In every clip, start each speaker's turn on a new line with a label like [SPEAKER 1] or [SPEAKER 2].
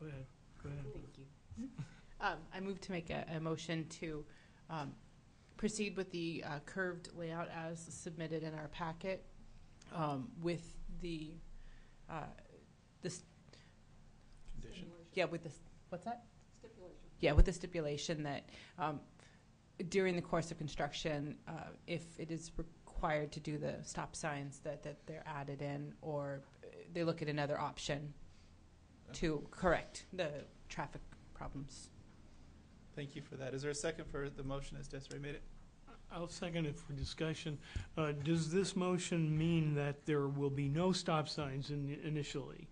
[SPEAKER 1] Go ahead, go ahead.
[SPEAKER 2] Thank you. Um, I move to make a, a motion to, um, proceed with the uh, curved layout as submitted in our packet, um, with the, uh, this,
[SPEAKER 1] Condition.
[SPEAKER 2] yeah, with this, what's that? Stipulation. Yeah, with the stipulation that, um, during the course of construction, uh, if it is required to do the stop signs, that, that they're added in, or uh, they look at another option to correct the traffic problems.
[SPEAKER 3] Thank you for that. Is there a second for the motion as Desiree made it?
[SPEAKER 1] I'll second it for discussion. Uh, Does this motion mean that there will be no stop signs in- initially?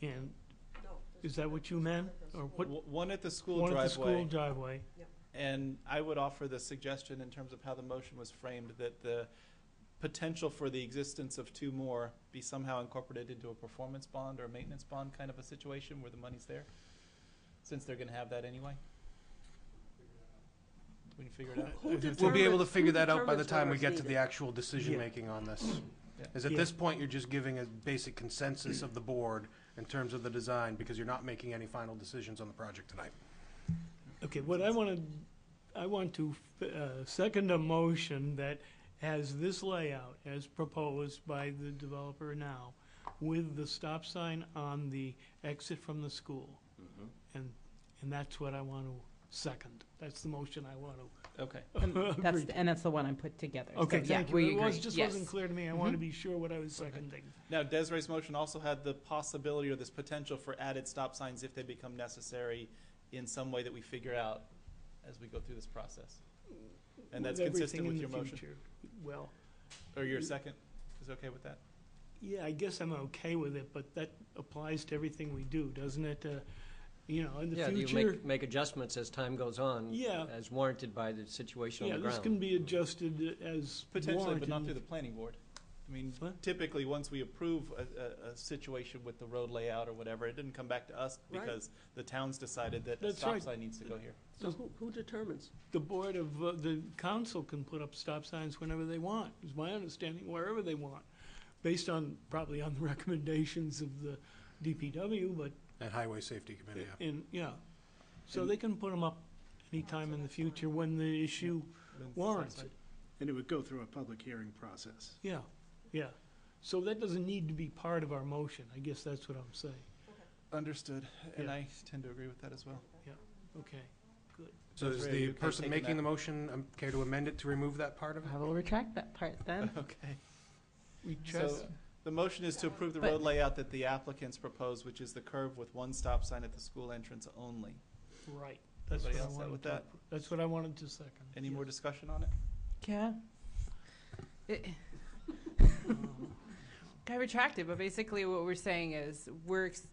[SPEAKER 1] And is that what you meant? Or what,
[SPEAKER 3] W- One at the school
[SPEAKER 1] one at the school driveway?
[SPEAKER 3] driveway, and I would offer the suggestion in terms of how the motion was framed, that the potential for the existence of two more be somehow incorporated into a performance bond or a maintenance bond kind of a situation where the money's there, since they're gonna have that anyway. We can figure it out.
[SPEAKER 1] Who
[SPEAKER 4] We'll be
[SPEAKER 1] determine-
[SPEAKER 4] able to figure
[SPEAKER 1] who
[SPEAKER 4] that out by the
[SPEAKER 1] determines
[SPEAKER 4] time we
[SPEAKER 1] whether
[SPEAKER 4] get
[SPEAKER 1] it's
[SPEAKER 4] to the
[SPEAKER 1] needed?
[SPEAKER 4] actual decision-making on this.
[SPEAKER 3] Yeah.
[SPEAKER 4] Is at
[SPEAKER 1] Yeah.
[SPEAKER 4] this point, you're just giving a basic consensus of the board in terms of the design, because you're not making any final decisions on the project tonight.
[SPEAKER 1] Okay, what I want to, I want to uh, second a motion that has this layout as proposed by the developer now with the stop sign on the exit from the school.
[SPEAKER 3] Mm-hmm.
[SPEAKER 1] And, and that's what I want to second. That's the motion I want to
[SPEAKER 3] Okay,
[SPEAKER 1] Agreed.
[SPEAKER 2] And Um, that's, and that's the one I put together. So,
[SPEAKER 1] Okay,
[SPEAKER 2] yeah,
[SPEAKER 1] thank
[SPEAKER 2] we
[SPEAKER 1] you. It was,
[SPEAKER 2] agree.
[SPEAKER 1] just
[SPEAKER 2] Yes.
[SPEAKER 1] wasn't clear to me. I want to
[SPEAKER 2] Mhm.
[SPEAKER 1] be sure what I was
[SPEAKER 3] Okay.
[SPEAKER 1] seconding.
[SPEAKER 3] Now, Desiree's motion also had the possibility or this potential for added stop signs if they become necessary in some way that we figure out as we go through this process. And that's
[SPEAKER 1] With everything
[SPEAKER 3] consistent
[SPEAKER 1] in
[SPEAKER 3] with
[SPEAKER 1] the
[SPEAKER 3] your motion?
[SPEAKER 1] future. Well,
[SPEAKER 3] Or your second is okay with that?
[SPEAKER 1] yeah, I guess I'm okay with it, but that applies to everything we do, doesn't it? Uh, You know, in the
[SPEAKER 5] Yeah, you
[SPEAKER 1] future,
[SPEAKER 5] make, make adjustments as time goes on.
[SPEAKER 1] Yeah.
[SPEAKER 5] As warranted by the situation on
[SPEAKER 1] yeah,
[SPEAKER 5] the
[SPEAKER 1] this
[SPEAKER 5] ground.
[SPEAKER 1] can be adjusted as
[SPEAKER 3] Potentially, but not
[SPEAKER 1] warranted.
[SPEAKER 3] through the planning board. I mean,
[SPEAKER 1] What?
[SPEAKER 3] typically, once we approve a, a, a situation with the road layout or whatever, it didn't come back to us
[SPEAKER 6] Right.
[SPEAKER 3] because the town's decided that a
[SPEAKER 1] That's
[SPEAKER 3] stop
[SPEAKER 1] right.
[SPEAKER 3] sign needs to go here.
[SPEAKER 6] So who, who determines?
[SPEAKER 1] The board of, uh, the council can put up stop signs whenever they want, is my understanding, wherever they want, based on, probably on the recommendations of the DPW, but
[SPEAKER 4] And Highway Safety Committee, yeah.
[SPEAKER 1] And, yeah, so they can put them up anytime in the future when the issue
[SPEAKER 3] Then it's
[SPEAKER 1] warrants
[SPEAKER 3] satisfied.
[SPEAKER 1] it.
[SPEAKER 7] And it would go through a public hearing process.
[SPEAKER 1] Yeah, yeah. So that doesn't need to be part of our motion. I guess that's what I'm saying.
[SPEAKER 3] Understood, and
[SPEAKER 1] Yeah.
[SPEAKER 3] I tend to agree with that as well.
[SPEAKER 1] Okay.
[SPEAKER 4] So
[SPEAKER 3] That's
[SPEAKER 4] is
[SPEAKER 3] right,
[SPEAKER 4] the
[SPEAKER 3] you can
[SPEAKER 4] person
[SPEAKER 3] take
[SPEAKER 4] making
[SPEAKER 3] that.
[SPEAKER 4] the motion, um, care to amend it to remove that part of it?
[SPEAKER 2] I will retract that part then.
[SPEAKER 3] Okay.
[SPEAKER 1] We trust,
[SPEAKER 3] So the motion is to approve the
[SPEAKER 2] But-
[SPEAKER 3] road layout that the applicants propose, which is the curve with one stop sign at the school entrance only.
[SPEAKER 1] right. That's what
[SPEAKER 3] Everybody
[SPEAKER 1] I
[SPEAKER 3] else set
[SPEAKER 1] wanted
[SPEAKER 3] with
[SPEAKER 1] to,
[SPEAKER 3] that?
[SPEAKER 1] that's what I wanted to second.
[SPEAKER 3] Any more
[SPEAKER 1] Yes.
[SPEAKER 3] discussion on it?
[SPEAKER 2] Yeah. It- I retracted, but basically what we're saying is we're ex-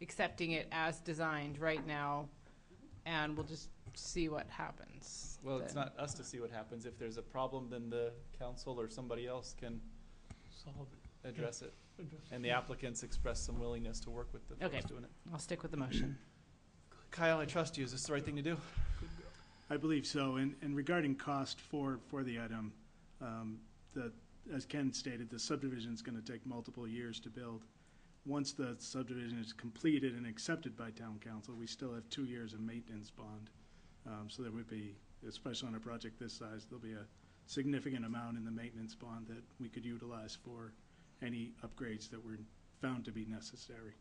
[SPEAKER 2] accepting it as designed right now, and we'll just see what happens.
[SPEAKER 3] Well, it's
[SPEAKER 2] then.
[SPEAKER 3] not us to see what happens. If there's a problem, then the council or somebody else can
[SPEAKER 1] Solve it.
[SPEAKER 3] address it.
[SPEAKER 1] Address it.
[SPEAKER 3] And the applicants expressed some willingness to work with the
[SPEAKER 2] Okay.
[SPEAKER 3] folks doing it.
[SPEAKER 2] I'll stick with the motion.
[SPEAKER 3] Kyle, I trust you. Is this the right thing to do?
[SPEAKER 7] I believe so. And, and regarding cost for, for the item, um, the, as Ken stated, the subdivision is gonna take multiple years to build. Once the subdivision is completed and accepted by town council, we still have two years of maintenance bond. Um, so there would be, especially on a project this size, there'll be a significant amount in the maintenance bond that we could utilize for any upgrades that were found to be necessary.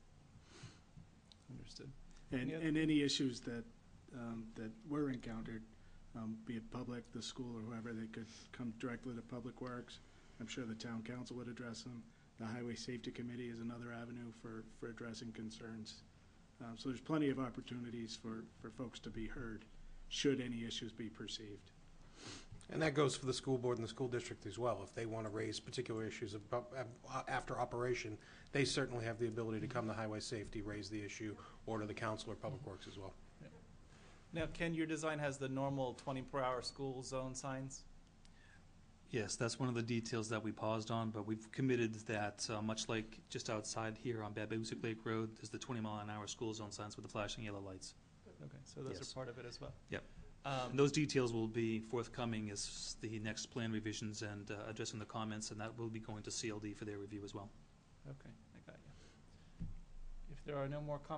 [SPEAKER 3] Understood.
[SPEAKER 7] And,
[SPEAKER 3] Any oth-
[SPEAKER 7] and any issues that, um, that were encountered, um, be it public, the school, or whoever, they could come directly to Public Works. I'm sure the town council would address them. The Highway Safety Committee is another avenue for, for addressing concerns. Um, so there's plenty of opportunities for, for folks to be heard, should any issues be perceived.
[SPEAKER 4] And that goes for the school board and the school district as well. If they want to raise particular issues abo- ab- after operation, they certainly have the ability to come to Highway Safety, raise the issue, or to the council or Public Works as well.
[SPEAKER 3] Now, Ken, your design has the normal twenty per hour school zone signs.
[SPEAKER 8] Yes, that's one of the details that we paused on, but we've committed that, uh, much like just outside here on Babusick Lake Road, there's the twenty mile an hour school zone signs with the flashing yellow lights.
[SPEAKER 3] Okay, so those
[SPEAKER 8] Yes.
[SPEAKER 3] are part of it as well.
[SPEAKER 8] Yep. And
[SPEAKER 3] Um,
[SPEAKER 8] those details will be forthcoming as the next plan revisions and, uh, addressing the comments, and that will be going to CLD for their review as well.
[SPEAKER 3] okay, I got you. If there are no more comments